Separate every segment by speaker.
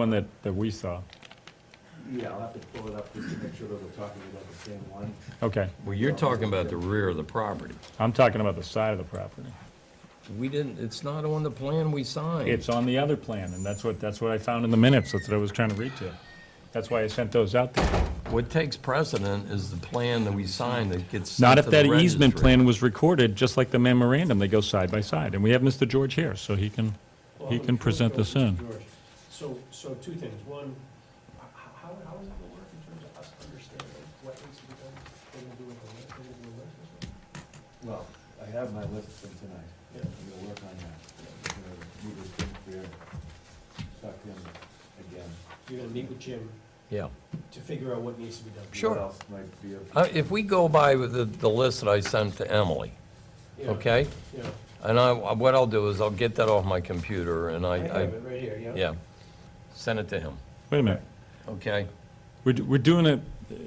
Speaker 1: One that, that we saw.
Speaker 2: Yeah, I'll have to pull it up just to make sure that we're talking about the same one.
Speaker 1: Okay,
Speaker 3: Well, you're talking about the rear of the property.
Speaker 1: I'm talking about the side of the property.
Speaker 3: We didn't, it's not on the plan we signed.
Speaker 1: It's on the other plan, and that's what, that's what I found in the minutes, that's what I was trying to read to you. That's why I sent those out there.
Speaker 3: What takes precedent is the plan that we signed that gets
Speaker 1: Not
Speaker 3: sent
Speaker 1: if
Speaker 3: to the
Speaker 1: that easement
Speaker 3: registry.
Speaker 1: plan was recorded, just like the memorandum, they go side by side, and we have Mr. George here, so he can, he can present this in.
Speaker 4: So, so two things. One, h- h- how, how is it gonna work in terms of us understanding what needs to be done? They're gonna do it, on the- they're gonna do a list or something?
Speaker 2: Well, I have my list from tonight.
Speaker 4: Yeah.
Speaker 2: I'm gonna work on that. I'm gonna meet with Jim Greer, talk to him again.
Speaker 4: You're gonna meet with Jim
Speaker 3: Yeah.
Speaker 4: to figure out what needs to be done.
Speaker 3: Sure.
Speaker 2: What else might be of?
Speaker 3: Uh, If we go by with the, the list that I sent to Emily,
Speaker 4: Yeah,
Speaker 3: okay?
Speaker 4: Yeah,
Speaker 3: And I, what I'll do is I'll get that off my computer and
Speaker 4: I
Speaker 3: I,
Speaker 4: have
Speaker 3: I,
Speaker 4: it right here, yeah.
Speaker 3: yeah, send it to him,
Speaker 1: Wait a minute,
Speaker 3: okay?
Speaker 1: we're, d- we're doing a,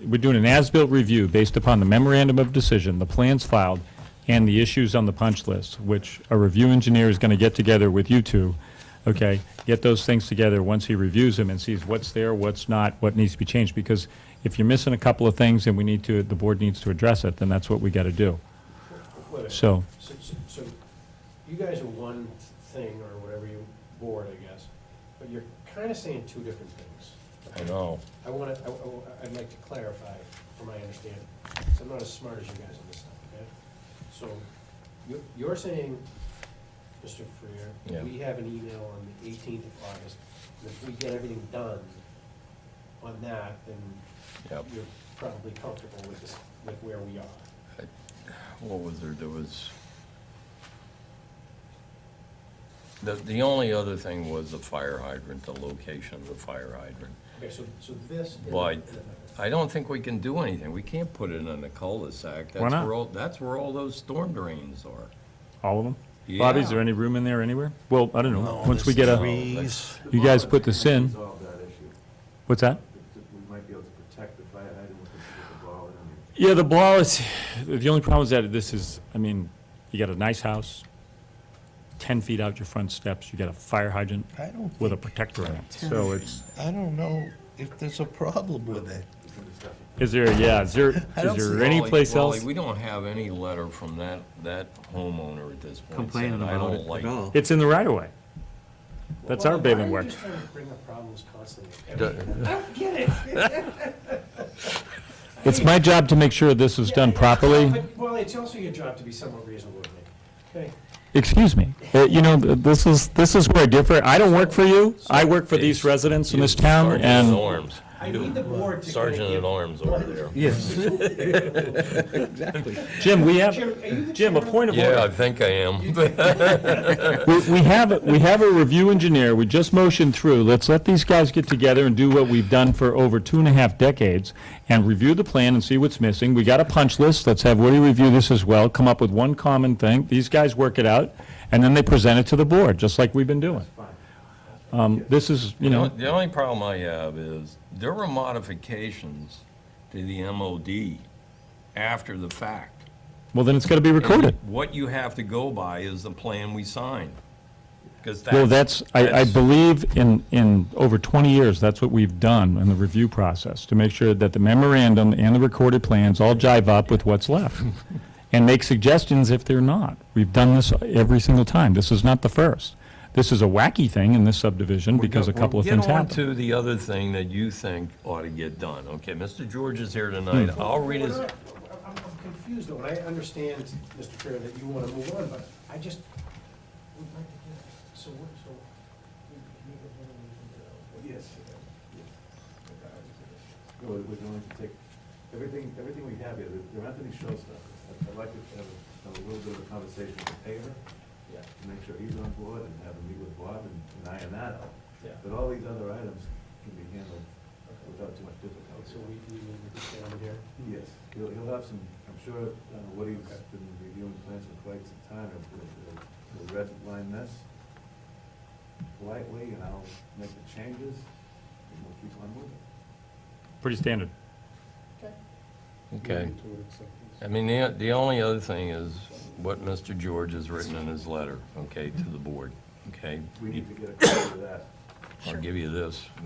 Speaker 1: we're doing an as-built review based upon the memorandum of decision, the plans filed, and the issues on the punch list, which a review engineer is gonna get together with you two, okay? Get those things together once he reviews them and sees what's there, what's not, what needs to be changed, because if you're missing a couple of things and we need to, the board needs to address it, then that's what we gotta do,
Speaker 4: Wait a minute.
Speaker 1: so.
Speaker 4: So, so- so you guys are one thing or whatever you, board, I guess, but you're kinda saying two different things.
Speaker 3: I know.
Speaker 4: I wanna, I- I, would like to clarify for my understanding, 'cause I'm not as smart as you guys on this stuff, okay? So, you're, you're saying, Mr.
Speaker 3: Yeah.
Speaker 4: Freer, we have an email on the eighteenth of August, and if we get everything done on that, then
Speaker 3: Yep.
Speaker 4: you're probably comfortable with this, with where we are.
Speaker 3: What was there, there was, the, the only other thing was the fire hydrant, the location of the fire hydrant.
Speaker 4: Okay, so, so this. is-
Speaker 3: Why? I don't think we can do anything. We can't put it in a cul-de-sac. That's
Speaker 1: Why not?
Speaker 3: where all- That's where all those storm drains are.
Speaker 1: All of them? Bobby, is
Speaker 3: Yeah.
Speaker 1: there any room in there anywhere? Well, I don't know, once we get
Speaker 3: No,
Speaker 1: a,
Speaker 3: that's-
Speaker 1: you guys put this in.
Speaker 2: Resolve that issue.
Speaker 1: what's that?
Speaker 2: That- that We might be able to protect the fire hydrant with the- with the ball and.
Speaker 1: Yeah, the ball is, the only problem is that this is, I mean, you got a nice house, ten feet out your front steps, you got a fire hydrant
Speaker 5: I don't,
Speaker 1: with a protector in it, so it's,
Speaker 5: I don't know if there's a problem with it.
Speaker 1: is there, yeah, is there,
Speaker 5: I don't
Speaker 1: is there
Speaker 5: see-
Speaker 1: any
Speaker 3: Wally-
Speaker 1: place
Speaker 3: Wally,
Speaker 1: else?
Speaker 3: We don't have any letter from that, that homeowner at this point.
Speaker 6: complaining
Speaker 3: saying, "I
Speaker 6: about
Speaker 3: don't
Speaker 6: it
Speaker 3: like
Speaker 6: at all.
Speaker 1: It's in the right of way. That's our
Speaker 4: Why-
Speaker 1: bailing
Speaker 4: Why are
Speaker 1: work.
Speaker 4: you just trying to bring up problems constantly?
Speaker 1: It's my job to make sure this is done properly.
Speaker 4: But, Well, it's also your job to be somewhat reasonable with me, okay?
Speaker 1: Excuse me, Uh, you know, th- this is, this is where I differ. I don't work for you, I work for these residents in this town,
Speaker 3: Sergeant at
Speaker 1: and
Speaker 3: arms.
Speaker 4: I need the board to. kinda
Speaker 3: Sergeant
Speaker 4: give-
Speaker 3: at arms over there.
Speaker 6: Yes. Exactly.
Speaker 1: Jim, we have,
Speaker 4: Jim, are you the
Speaker 1: Jim, a
Speaker 4: chair?
Speaker 1: point of order.
Speaker 3: Yeah, I think I am.
Speaker 1: We, we have, we have a review engineer, we just motioned through, let's let these guys get together and do what we've done for over two and a half decades, and review the plan and see what's missing, we got a punch list, let's have Woody review this as well, come up with one common thing, these guys work it out, and then they present it to the board, just like we've been doing. Um, this is, you
Speaker 3: The
Speaker 1: know,
Speaker 3: only- The only problem I have is, there were modifications to the MOD after the fact.
Speaker 1: well, then it's gotta be recorded.
Speaker 3: What you have to go by is the plan we signed, because that's.
Speaker 1: Well, that's, I, I
Speaker 3: that's-
Speaker 1: believe in, in over 20 years, that's what we've done in the review process, to make sure that the memorandum and the recorded plans all jive up with what's left, and make suggestions if they're not. We've done this every single time. This is not the first. This is a wacky thing in this subdivision because a
Speaker 3: Well,
Speaker 1: couple of things
Speaker 3: Get
Speaker 1: happened.
Speaker 3: on to the other thing that you think ought to get done. Okay, Mr. George is here tonight.
Speaker 1: Hmm.
Speaker 3: I'll read
Speaker 4: We're
Speaker 3: his,
Speaker 4: not- I'm, I'm confused though, and I understand, Mr. Fair, that you wanna move on, but I just, would like to hear, so what, so. we- we have one of these, uh,
Speaker 2: Yes. No, we're we're going to take, everything, everything we have here, there- there aren't any showstoppers. I'd- I'd like to have a- have a little bit of a conversation with the paver, to make sure he's on board and have a meet with Bob and and iron that out.
Speaker 4: Yeah.
Speaker 2: But all these other items can be handled
Speaker 4: Okay.
Speaker 2: without too much
Speaker 4: So
Speaker 2: difficulty.
Speaker 4: we, we meet with this gentleman here,
Speaker 2: Yes, he'll, he'll have some, I'm sure uh, Woody's been reviewing plans for quite some time. He'll- He'll he'll red line this politely and I'll make the changes and we'll keep on moving.
Speaker 1: Pretty standard.
Speaker 4: okay?
Speaker 3: okay.
Speaker 4: Moving toward acceptance.
Speaker 3: I mean, the, the only other thing is what Mr. George has written in his letter, okay, to the board, okay?
Speaker 2: We need to get a copy of that.
Speaker 3: I'll give you this.